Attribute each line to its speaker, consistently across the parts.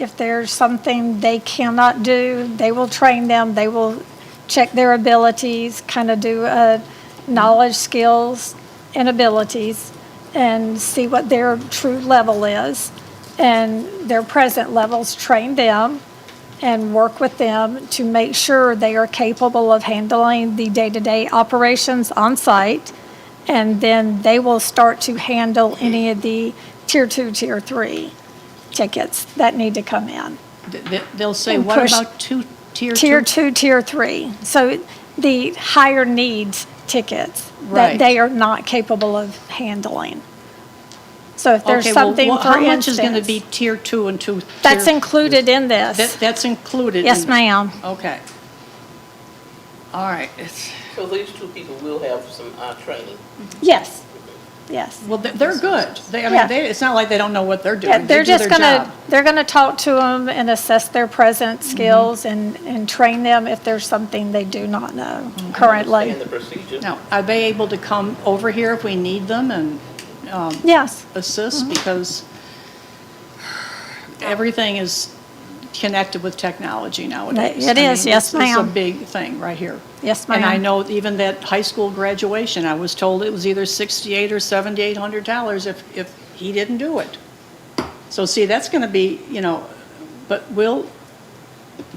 Speaker 1: If there's something they cannot do, they will train them, they will check their abilities, kind of do a knowledge, skills, and abilities, and see what their true level is. And their present levels, train them and work with them to make sure they are capable of handling the day-to-day operations on site. And then they will start to handle any of the tier two, tier three tickets that need to come in.
Speaker 2: Th- th- They'll say,
Speaker 1: And
Speaker 2: what
Speaker 1: push-
Speaker 2: about two, tier two?
Speaker 1: Tier two, tier three. So the higher needs tickets that
Speaker 2: Right.
Speaker 1: they are not capable of handling. So if there's
Speaker 2: Okay, well,
Speaker 1: something,
Speaker 2: wha-
Speaker 1: for
Speaker 2: How much is going to be
Speaker 1: instance,
Speaker 2: tier two and two?
Speaker 1: that's
Speaker 2: tier-
Speaker 1: included in this.
Speaker 2: that- That's included?
Speaker 1: Yes,
Speaker 2: in-
Speaker 1: ma'am.
Speaker 2: Okay. All right, it's,
Speaker 3: So these two people will have some uh, training.
Speaker 1: Yes, yes.
Speaker 2: well, they- they're good. They, I
Speaker 1: Yeah.
Speaker 2: mean, they, it's not like they don't know what they're doing.
Speaker 1: Yeah, they're
Speaker 2: They do
Speaker 1: just
Speaker 2: their
Speaker 1: gonna,
Speaker 2: job.
Speaker 1: they're gonna talk to them and assess their present
Speaker 2: Mm-hmm.
Speaker 1: skills and, and train them if there's something they do not know
Speaker 2: Mm-hmm.
Speaker 3: And
Speaker 1: currently.
Speaker 3: the procedure.
Speaker 2: Now, are they able to come over here if we need them and um,
Speaker 1: Yes, Mm-hmm.
Speaker 2: assist? Because everything is connected with technology nowadays.
Speaker 1: It
Speaker 2: I
Speaker 1: is,
Speaker 2: mean,
Speaker 1: yes,
Speaker 2: this- This is
Speaker 1: ma'am.
Speaker 2: a big thing right here.
Speaker 1: yes,
Speaker 2: And I
Speaker 1: ma'am.
Speaker 2: know even that high school graduation, I was told it was either 68 or 7,800 dollars if, if he didn't do it. So see, that's going to be, you know, but we'll,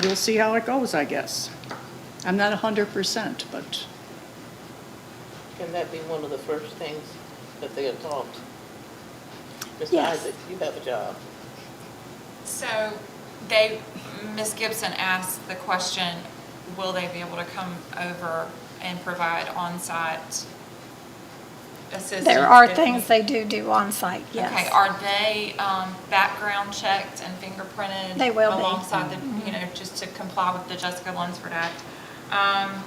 Speaker 2: we'll see how it goes, I guess. I'm not 100%, but
Speaker 3: Can that be one of the first things that they are taught? Mr.
Speaker 1: Yes.
Speaker 3: Isaac, you have a job.
Speaker 4: So they, Ms. Gibson asked the question, will they be able to come over and provide on-site assistance?
Speaker 1: There are
Speaker 4: if
Speaker 1: things
Speaker 4: need-
Speaker 1: they do do on site.
Speaker 4: Okay,
Speaker 1: yes.
Speaker 4: are they um, background checked and fingerprinted?
Speaker 1: They will be. Mm-hmm.
Speaker 4: Alongside the, you know, just to comply with the Jessica Lunsford Act? Um,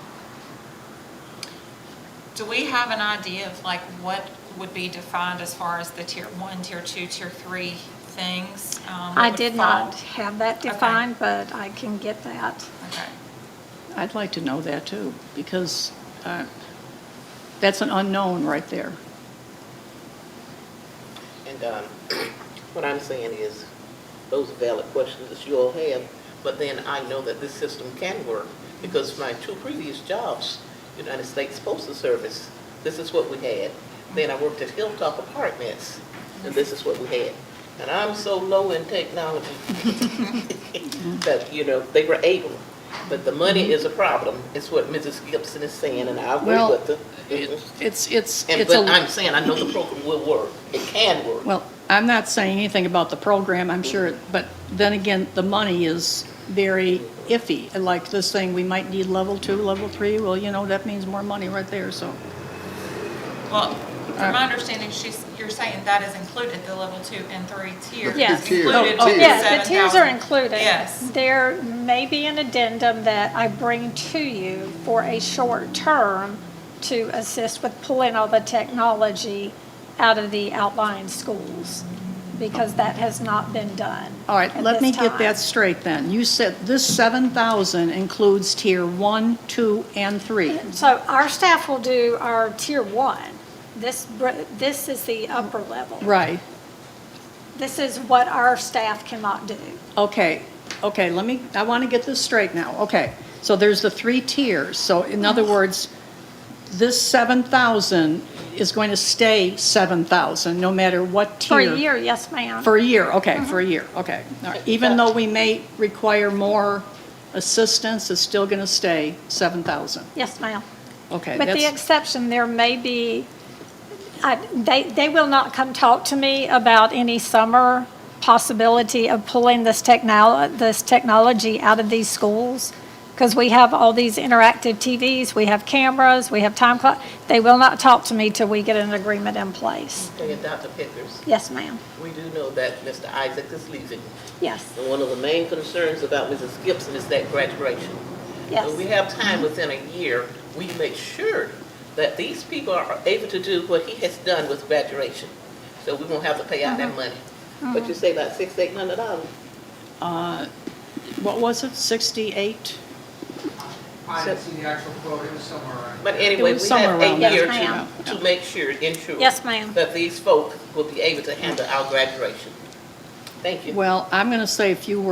Speaker 4: Do we have an idea of like what would be defined as far as the tier one, tier two, tier three things? um, that
Speaker 1: I
Speaker 4: would
Speaker 1: did
Speaker 4: fall?
Speaker 1: not have that defined, but I can get that.
Speaker 4: Okay,
Speaker 2: I'd like to know that too, because uh, that's an unknown right there.
Speaker 3: And um, what I'm saying is, those are valid questions that you all have, but then I know that this system can work because my two previous jobs, United States Postal Service, this is what we had. Then I worked at Hilltop Apartments, and this is what we had. And I'm so low in technology that, you know, they were able. But the money is a problem, is what Mrs. Gibson is saying, and I agree
Speaker 2: Well,
Speaker 3: with her.
Speaker 2: It's, it's,
Speaker 3: And,
Speaker 2: it's a.
Speaker 3: but I'm saying, I know the program will work. It can work.
Speaker 2: Well, I'm not saying anything about the program, I'm sure, but then again, the money is very iffy. And Like this thing, we might need level two, level three, well, you know, that means more money right there, so.
Speaker 4: well, from
Speaker 1: Uh,
Speaker 4: my understanding, she's, you're saying that is included, the level two and three tier.
Speaker 1: Yes.
Speaker 4: is included
Speaker 2: Oh,
Speaker 4: with
Speaker 2: tiers.
Speaker 1: Yeah, the tiers are
Speaker 4: 7,000.
Speaker 1: included.
Speaker 4: Yes.
Speaker 1: There may be an addendum that I bring to you for a short term to assist with pulling all the technology out of the outlying schools, because that has not been done.
Speaker 2: All right,
Speaker 1: at
Speaker 2: let me
Speaker 1: this
Speaker 2: get
Speaker 1: time.
Speaker 2: that straight then. You said this seven thousand includes tier one, two, and three.
Speaker 1: So our staff will do our tier one. This, br- this is the upper level.
Speaker 2: Right,
Speaker 1: This is what our staff cannot do.
Speaker 2: okay, okay, let me, I want to get this straight now, okay. So there's the three tiers, so in other words, this seven thousand is going to stay seven thousand, no matter what tier.
Speaker 1: For a year, Mm-hmm. yes, ma'am.
Speaker 2: For a year, okay, for a year, okay. All right. Even though we may require more assistance, it's still going to stay 7,000.
Speaker 1: Yes, ma'am.
Speaker 2: Okay,
Speaker 1: With the
Speaker 2: that's,
Speaker 1: exception, there may be, I- they, they will not come talk to me about any summer possibility of pulling this technol, this technology out of these schools, because we have all these interactive TVs, we have cameras, we have time clock. They will not talk to me till we get an agreement in place.
Speaker 3: Okay, and Dr. Pickers,
Speaker 1: Yes, ma'am.
Speaker 3: we do know that Mr. Isaac is leaving.
Speaker 1: Yes,
Speaker 3: And one of the main concerns about Mrs. Gibson is that graduation. When we
Speaker 1: yes.
Speaker 3: have time within a year, we make sure that these people are able to do what he has done with graduation. So we won't have to pay out that money. But you say about six, eight hundred dollars?
Speaker 2: what was it, 68?
Speaker 5: I didn't see the actual quote, it was somewhere around.
Speaker 3: But anyway,
Speaker 2: was
Speaker 3: we
Speaker 2: somewhere
Speaker 3: have
Speaker 2: around
Speaker 3: a
Speaker 2: that.
Speaker 3: year
Speaker 1: Yes,
Speaker 3: to,
Speaker 1: ma'am.
Speaker 3: to make sure, ensure
Speaker 1: Yes, ma'am.
Speaker 3: that these folk will be able to handle our graduation. Thank you.
Speaker 2: Well, I'm going to say if you were